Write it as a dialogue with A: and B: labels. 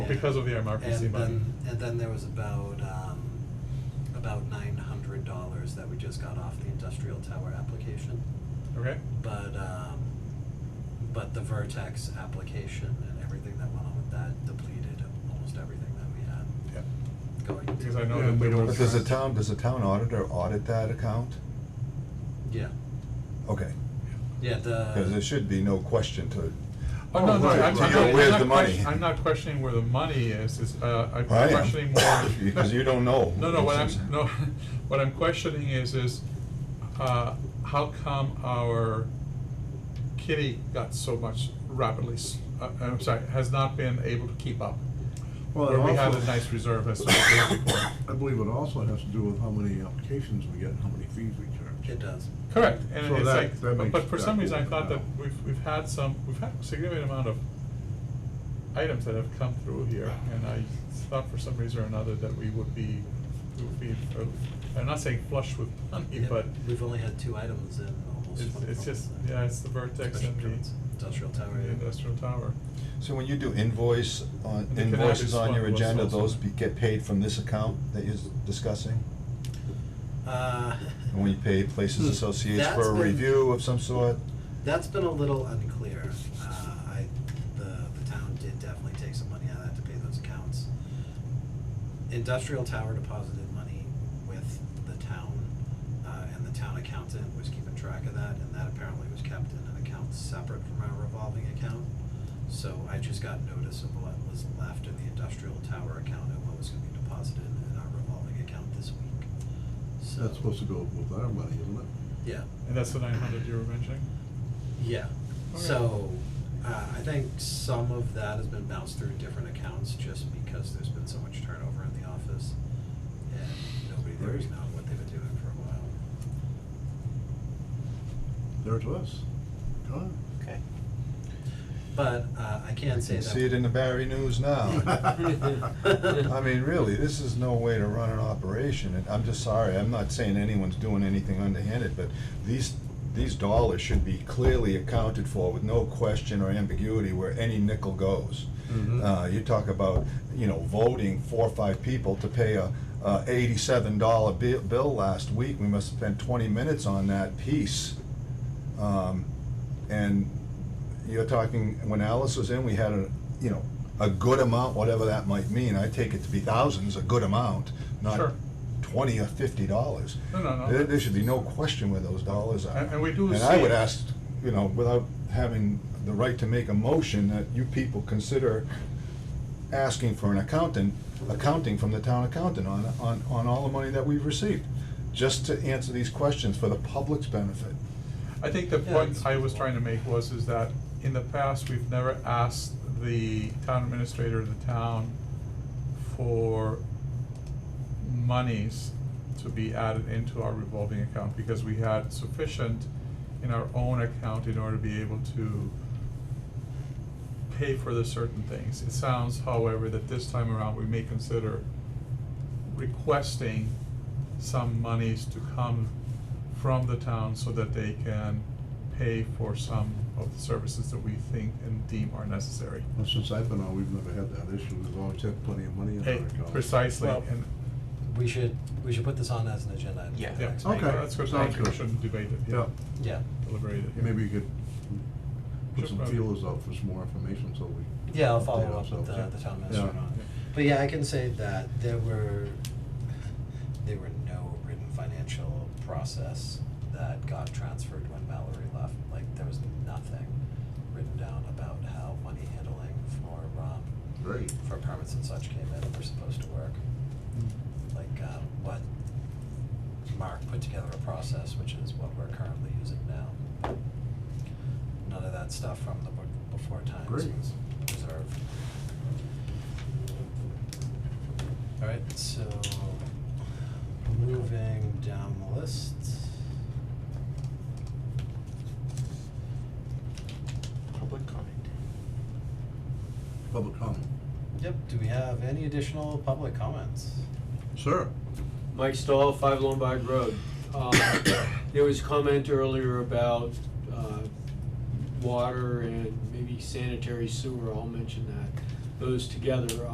A: because of the MRPC
B: And
A: money.
B: then, and then there was about, um, about nine hundred dollars that we just got off the industrial tower application.
A: Okay,
B: But, um, but the Vertex application and everything that went on with that depleted almost everything that we had
A: yeah,
B: going. into
A: because I know
C: Yeah,
A: that
C: we
A: there
C: don't-
A: was.
D: But does the town, does the town auditor audit that account?
B: Yeah,
D: Okay, Oh,
B: yeah,
D: because there
B: the,
D: should be no question to,
A: Oh, no, no,
D: right,
A: I'm,
D: right.
A: I'm
D: Yeah,
A: not,
D: where's
A: I'm not
D: the money?
A: question- I'm not questioning where the money is, is, uh, I'm
D: I am.
A: questioning more.
D: Because you don't know.
A: No, no, what I'm, no, what I'm questioning is, is, uh, how come our kitty got so much rapidly, s- uh, I'm sorry, has not been able to keep up?
C: Well, it
A: Where we had
C: also-
A: a nice reserve as a before.
C: I believe it also has to do with how many applications we get, and how many fees we charge.
B: it does.
A: Correct, and
C: So
A: it's
C: that-
A: like, but-
C: that makes
A: but for some
C: that
A: reason, I
C: work
A: thought that
C: out.
A: we've, we've had some, we've had a significant amount of items that have come through here, and I thought for some reason or another that we would be, we would be, uh, I'm not saying flush with money,
B: Yeah,
A: but
B: We've only had two items in almost
A: it's,
B: twenty-four
A: it's just,
B: months now.
A: yeah, it's the vertex
B: Special
A: and the,
B: permits, industrial tower,
A: the
B: yeah.
A: industrial tower.
D: So when you do invoice, on
A: And the cannabis
D: invoices on your
A: one was
D: agenda,
A: also-
D: those be, get paid from this account that you're discussing?
B: Uh,
D: And when you pay Places Associates
B: Hmm. That's
D: for a
B: been-
D: review of some sort?
B: That's been a little unclear. Uh, I, the, the town did definitely take some money out of that to pay those accounts. Industrial Tower deposited money with the town, uh, and the town accountant was keeping track of that, and that apparently was kept in an account separate from our revolving account. So I just got notice of what was left in the industrial tower account and what was gonna be deposited in our revolving account this week. So,
C: That's supposed to go with our money, isn't it?
B: yeah.
A: And that's the nine hundred you were mentioning?
B: Yeah,
A: Okay.
B: so, uh, I think some of that has been bounced through different accounts just because there's been so much turnover in the office. And nobody there is known what they've been doing for a while.
C: There it was. Gone.
E: Okay.
B: But, uh, I can say
D: You
B: that.
D: See it in the Barry News now.
C: Mm-hmm.
D: I mean, really, this is no way to run an operation, and I'm just sorry, I'm not saying anyone's doing anything underhanded, but these, these dollars should be clearly accounted for with no question or ambiguity where any nickel goes.
A: Mm-hmm.
B: Mhm.
D: Uh, you talk about, you know, voting four or five people to pay a, a eighty-seven dollar bill, bill last week, we must have spent twenty minutes on that piece. Um, and you're talking, when Alice was in, we had a, you know, a good amount, whatever that might mean, I take it to be thousands, a good amount,
A: Sure.
D: not twenty or fifty dollars.
A: No, no, no.
D: There, there should be no question where those dollars are.
A: And- and we do
D: And I
A: see-
D: would ask, you know, without having the right to make a motion, that you people consider asking for an accountant, accounting from the town accountant on, on, on all the money that we've received, just to answer these questions for the public's benefit.
A: I think the
B: Yeah,
A: point
B: it's-
A: I was trying to make was, is that in the past, we've never asked the town administrator of the town for monies to be added into our revolving account, because we had sufficient in our own account in order to be able to pay for the certain things. It sounds, however, that this time around, we may consider requesting some monies to come from the town so that they can pay for some of the services that we think and deem are necessary.
C: Well, since I've been on, we've never had that issue. We've always had plenty of money in our
A: Hey,
C: account.
A: Precisely,
B: Well-
A: and,
B: We should, we should put this on as an agenda item. for
E: Yeah.
B: the
A: yeah,
B: next
C: Okay.
B: meeting.
A: that's good,
C: sounds
A: thank you, we
C: good.
A: shouldn't debate it, yeah,
C: Yeah.
B: Yeah,
A: deliberate it. yeah.
C: Maybe you could
A: Sure,
C: put some
A: probably.
C: feelers out for some more information, so we.
B: yeah, I'll follow
C: update
B: up with uh, the,
C: ourselves.
B: the town
C: Yeah.
B: minister on it. But yeah, I can say that there were, there were no written financial process that got transferred when Mallory left. Like, there was nothing written down about how money handling for, um,
C: Great.
B: for permits and such came in and were supposed to work. Like, uh, what Mark put together a process, which is what we're currently using now. None of that stuff from the be- before times was
C: Great.
B: preserved. Alright, so moving down the list.
E: Public comment.
C: Public comment.
B: Yep, do we have any additional public comments?
C: Sir?
F: Mike Stahl, Five Lombard Road. Um, There was comment earlier about uh, water and maybe sanitary sewer, I'll mention that, those together.